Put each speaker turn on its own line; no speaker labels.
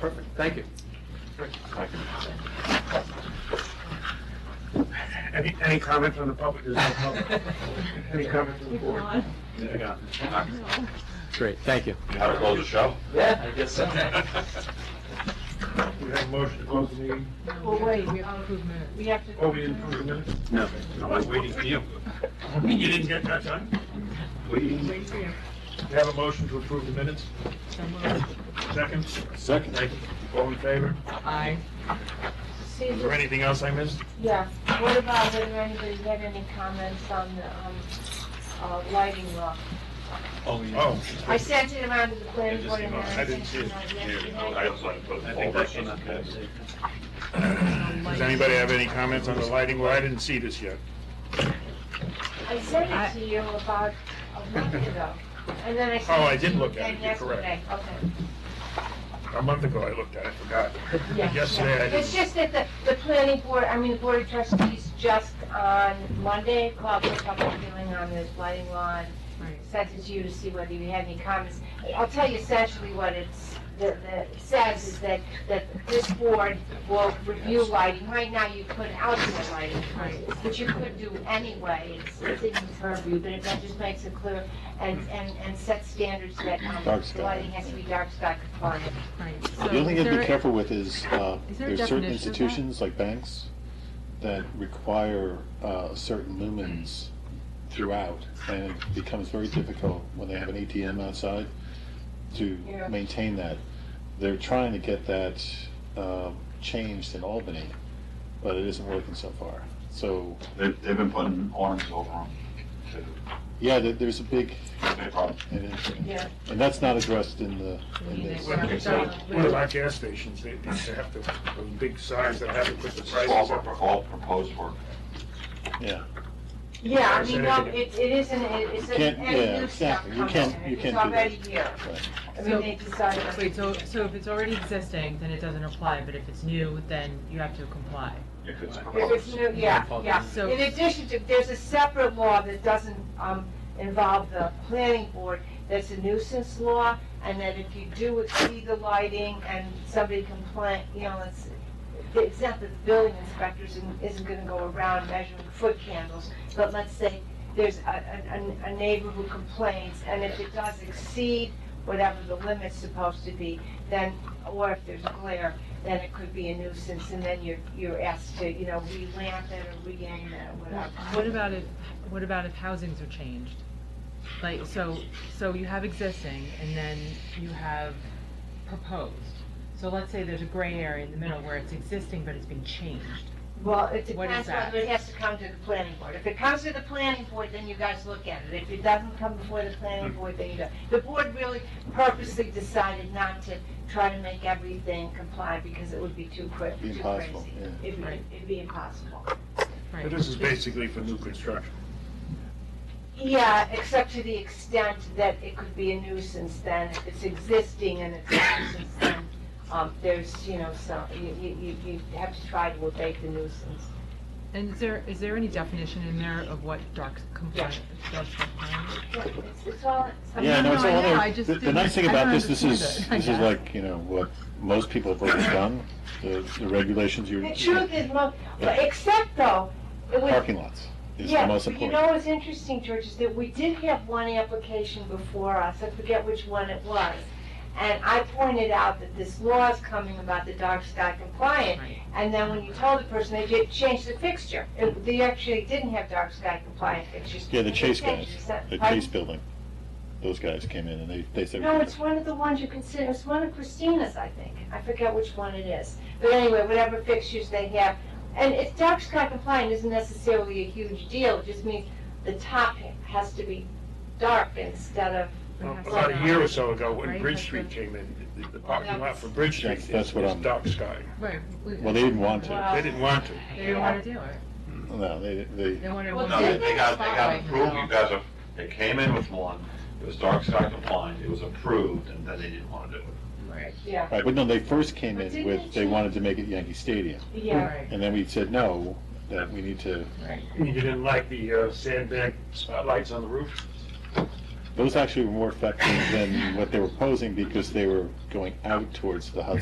Perfect, thank you.
Any, any comment from the public? There's no public. Any comment from the board?
Great, thank you.
You want to close the show?
Yeah, I guess so.
We have a motion to close the meeting.
Well, wait, we have to, we have to.
Oh, we didn't approve the minutes?
No. I was waiting for you.
You didn't get that done?
Waiting.
Wait for you.
We have a motion to approve the minutes? Second?
Second.
Thank you. All in favor?
Aye.
See,
Is there anything else I missed?
yeah, what about whether anybody's got any comments on the, um, uh, lighting law?
Oh,
I sent it around to the planning board and
I didn't see it.
I also like to put it forward.
does anybody have any comments on the lighting? Well, I didn't see this yet.
I sent it to you about a month ago, and then I sent.
Oh, I did
to you
look at it.
again
You're correct.
yesterday. Okay.
A month ago, I looked at it, forgot.
Yeah,
Yesterday,
yeah.
I
It's
didn't.
just that the, the planning board, I mean, the board of trustees just on Monday called for a public hearing on this lighting law and
Right.
sent it to you to see whether you had any comments. I'll tell you essentially what it's, the, the, it says is that, that this board will review lighting. Right now, you put outdoor lighting, which you could do anyway, it's, it's in its purview, but it- that just makes it clear and, and, and sets standards that, um,
Dark sky.
lighting has to be dark sky compliant.
Right. So
The
Um,
only
is
thing to
there
be
a-
careful with is, uh,
Is there a
there's certain
definition of that?
institutions, like banks, that require uh, certain lumens throughout, and it becomes very difficult when they have an ATM outside to
Yeah.
maintain that. They're trying to get that um, changed in Albany, but it isn't working so far. So,
They've, they've been putting arms over them.
yeah, there- there's a big,
Big problem.
it is-
Yeah.
and that's not addressed in the, in
Yeah.
this.
Well, it's like One of our gas stations, they they have to, those big signs that have to put the prices
All,
up.
pro- all proposed work.
Yeah,
Yeah, I
Is
mean,
there
no,
anything-
it, it isn't, it- it's,
You
an-
can't- yeah,
any new stuff
exactly. You
comes
can't-
in,
you
it's
can't do that.
already here.
right.
I mean, they decided.
Wait, so, so if it's already existing, then it doesn't apply, but if it's new, then you have to comply.
If it's
If it's
proposed.
new, yeah, yeah.
So-
In addition to, there's a separate law that doesn't, um, involve the planning board, that's a nuisance law, and that if you do exceed the lighting and somebody complain, you know, it's, it's not that the building inspector isn't, isn't gonna go around measuring foot candles, but let's say there's a, a, a- a neighbor who complains, and if it does exceed whatever the limit's supposed to be, then, or if there's glare, then it could be a nuisance, and then you're, you're asked to, you know, re-lamp it or re-aim it or whatever.
What about if, what about if housings are changed? Like, so, so you have existing and then you have proposed. So let's say there's a gray area in the middle where it's existing but it's been changed.
Well, it
What
depends
is that?
whether it has to come to the planning board. If it comes to the planning board, then you guys look at it. If it doesn't come before the
Hmm.
planning board, then you don't. The board really purposely decided not to try to make everything comply because it would be too quick,
Be
too
impossible,
crazy.
yeah.
It'd be,
Right.
it'd be impossible.
Right.
But this is basically for new construction.
Yeah, except to the extent that it could be a nuisance then, if it's existing and it's a nuisance, then, um, there's, you know, some, you, you, you- you have to try to abate the nuisance.
And is there, is there any definition in there of what dark compliant, dark compliant?
Yeah, It's, it's all, it's
Yeah,
No,
no, it's
no, I
all
know, I
there.
just
The, the
didn't-
nice thing
I
about
don't
this, this is,
understand it, I
this is
guess.
like, you know, what most people have already done, the, the regulations, your
The truth is, mo- but except though, it was.
parking lots is the
Yeah,
most
but you
important.
know what's interesting, George, is that we did have one application before us, I forget which one it was. And I pointed out that this law is coming about the dark sky compliant.
Right.
And then when you told the person, they did change the fixture. It- They actually didn't have dark sky compliant fixtures.
Yeah, the
They
Chase guys,
changed it. Is that-
the
pardon?
Chase building, those guys came in and they, they said.
No, it's one of the ones you consider, it's one of Christina's, I think. I forget which one it is. But anyway, whatever fixtures they have. And it's dark sky compliant isn't necessarily a huge deal, it just means the top has to be dark instead of,
About a year or so ago, when Bridge Street came in, the- the parking lot for Bridge Street
That's- that's
is
what
is
I'm-
dark sky.
Right. we-
Well, they didn't want to.
They didn't want to.
They didn't want to do it.
No, they,
They
they,
wanted
Well,
one.
No, they they got, they got
Right.
approved, you guys are, they came in with one, it was dark sky compliant, it was approved, and then they didn't want to do it.
Right.
yeah,
right, but no, they first came
But
in
didn't they
with, they
change-
wanted to make it Yankee Stadium.
yeah.
Right.
And then we said, no, that we need to,
You didn't like the uh, sandbag spotlights on the roof?
those actually were more effective than what they were posing because they were going out towards the Hudson.